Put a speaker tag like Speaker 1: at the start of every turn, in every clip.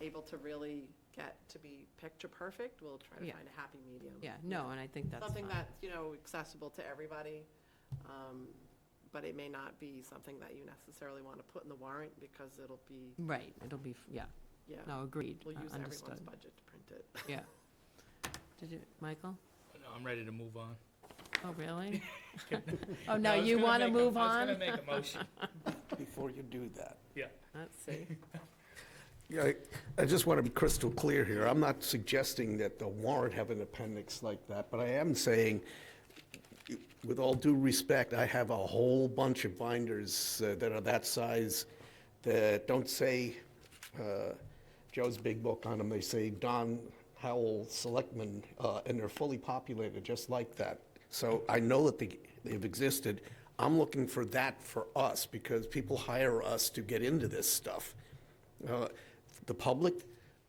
Speaker 1: able to really get to be picture perfect, we'll try to
Speaker 2: Yeah.
Speaker 1: find a happy medium.
Speaker 2: Yeah, no, and I think that's
Speaker 1: Something
Speaker 2: fine.
Speaker 1: that's, you know, accessible to everybody, um, but it may not be something that you necessarily want to put in the warrant because it'll be,
Speaker 2: Right, it'll be, f- yeah,
Speaker 1: yeah,
Speaker 2: no, agreed,
Speaker 1: we'll
Speaker 2: uh,
Speaker 1: use everyone's
Speaker 2: understood.
Speaker 1: budget to print it.
Speaker 2: Yeah. Did you, Michael?
Speaker 3: No, I'm ready to move on.
Speaker 2: Oh, really? Oh,
Speaker 3: I
Speaker 2: no,
Speaker 3: was
Speaker 2: you
Speaker 3: gonna
Speaker 2: want to
Speaker 3: make a-
Speaker 2: move
Speaker 3: I was
Speaker 2: on?
Speaker 3: gonna make a motion.
Speaker 4: before you do that.
Speaker 3: Yeah.
Speaker 2: Let's see.
Speaker 4: Yeah, I- I just want to be crystal clear here. I'm not suggesting that the warrant have an appendix like that, but I am saying, with all due respect, I have a whole bunch of binders uh, that are that size that don't say uh, Joe's Big Book on them. They say Don Howell Selectman, uh, and they're fully populated, just like that. So I know that they- they've existed. I'm looking for that for us, because people hire us to get into this stuff. Uh, The public,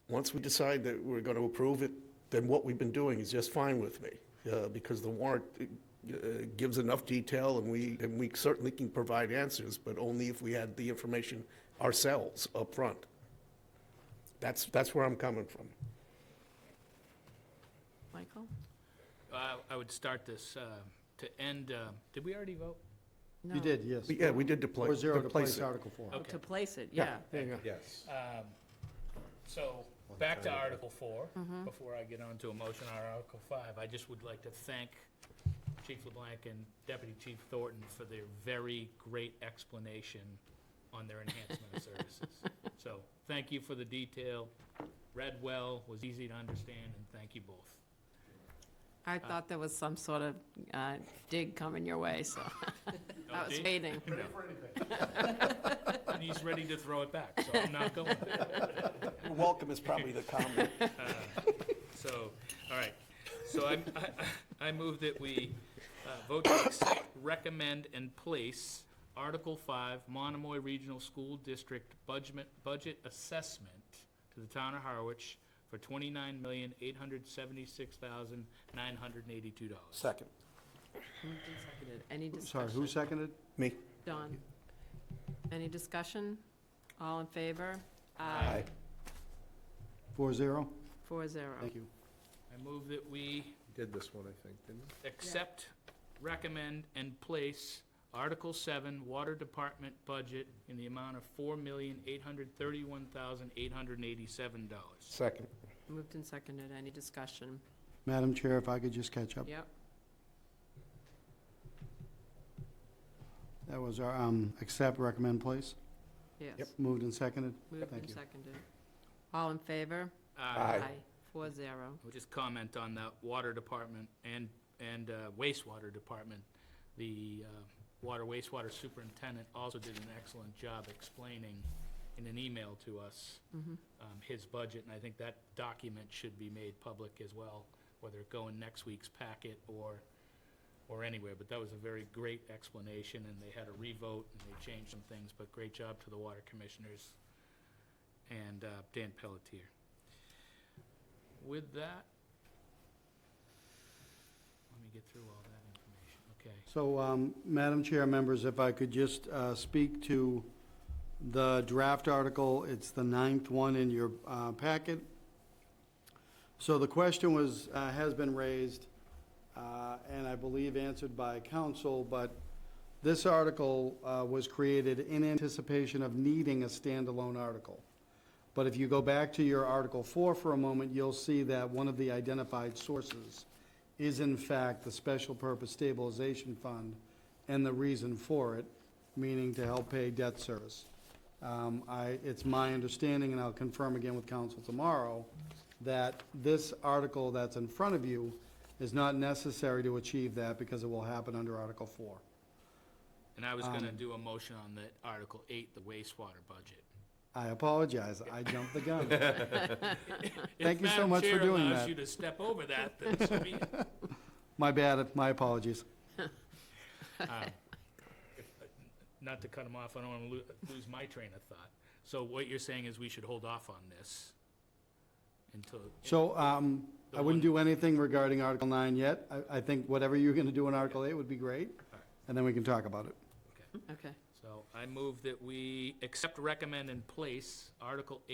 Speaker 4: once we decide that we're going to approve it, then what we've been doing is just fine with me, uh, because the warrant uh, gives enough detail, and we, and we certainly can provide answers, but only if we had the information ourselves up front. That's, that's where I'm coming from.
Speaker 2: Michael?
Speaker 3: Uh, I would start this uh, to end, uh, did we already vote?
Speaker 2: No.
Speaker 5: You did, yes.
Speaker 4: But yeah, we did deploy.
Speaker 5: Four zero to place
Speaker 4: it.
Speaker 5: Article four.
Speaker 2: Oh,
Speaker 3: Okay.
Speaker 2: To place it, yeah.
Speaker 4: There you go.
Speaker 5: Yes.
Speaker 3: Um, So, back to Article 4,
Speaker 2: Mm-hmm.
Speaker 3: before I get on to a motion on Article 5. I just would like to thank Chief LeBlanc and Deputy Chief Thornton for their very great explanation on their enhancement of services. So, thank you for the detail, read well, was easy to understand, and thank you both.
Speaker 2: I
Speaker 3: Uh.
Speaker 2: thought there was some sort of uh, dig coming your way, so
Speaker 3: No
Speaker 2: I was
Speaker 3: dig?
Speaker 2: waiting.
Speaker 3: No. And he's ready to throw it back, so I'm not going there.
Speaker 4: Welcome is probably the comment.
Speaker 3: So, all right. So I, I, I move that we uh, vote to accept, recommend, and place Article Five, Monomoy Regional School District Budget, Budget Assessment to the Town of Harwich for twenty-nine million, eight hundred seventy-six thousand, nine hundred and eighty-two dollars.
Speaker 4: Second.
Speaker 2: Moved and seconded. Any
Speaker 5: Sorry, who
Speaker 2: discussion?
Speaker 5: seconded?
Speaker 4: Me?
Speaker 2: Don? Any discussion? All in favor?
Speaker 5: Four zero?
Speaker 2: Four zero.
Speaker 5: Thank you.
Speaker 3: I move that we
Speaker 6: Did this one, I think, didn't we?
Speaker 3: accept, recommend, and place Article Seven Water Department Budget in the amount of four million, eight hundred thirty-one thousand, eight hundred and eighty-seven dollars.
Speaker 4: Second.
Speaker 2: Moved and seconded. Any discussion?
Speaker 5: Madam Chair, if I could just catch up.
Speaker 2: Yep.
Speaker 5: That was our, um, accept, recommend, place.
Speaker 2: Yes.
Speaker 5: Moved and seconded.
Speaker 2: Moved
Speaker 5: Thank
Speaker 2: and
Speaker 5: you.
Speaker 2: seconded. All in favor?
Speaker 4: Aye.
Speaker 2: Four zero.
Speaker 3: I'll just comment on the water department and, and uh, wastewater department. The uh, water wastewater superintendent also did an excellent job explaining in an email to us um, his budget, and I think that document should be made public as well, whether it go in next week's packet or, or anywhere. But that was a very great explanation, and they had a revote, and they changed some things, but great job to the water commissioners and uh, Dan Pelletier. With that, let me get through all that information, okay?
Speaker 5: So, um, Madam Chair, members, if I could just uh, speak to the draft article, it's the ninth one in your uh, packet. So the question was, uh, has been raised, uh, and I believe answered by council, but this article uh, was created in anticipation of needing a standalone article. But if you go back to your Article 4 for a moment, you'll see that one of the identified sources is in fact the Special Purpose Stabilization Fund and the reason for it, meaning to help pay debt service. Um, I, it's my understanding, and I'll confirm again with council tomorrow, that this article that's in front of you is not necessary to achieve that because it will happen under Article 4.
Speaker 3: And I was gonna do a motion on the Article eight, the wastewater budget.
Speaker 5: I apologize, I jumped the gun. Thank
Speaker 3: If
Speaker 5: you so
Speaker 3: Madam
Speaker 5: much for
Speaker 3: Chair
Speaker 5: doing
Speaker 3: allows
Speaker 5: that.
Speaker 3: you to step over that, then so be it.
Speaker 5: My bad, my apologies.
Speaker 3: Um, if- Not to cut him off, I don't wanna lo- lose my train of thought. So what you're saying is we should hold off on this until,
Speaker 5: So um, I
Speaker 3: The
Speaker 5: wouldn't do anything regarding Article 9 yet. I, I think whatever you're going to do in Article 8 would be great, and then we can talk about it.
Speaker 3: okay.
Speaker 2: Okay.
Speaker 3: So I move that we accept, recommend, and place Article eight.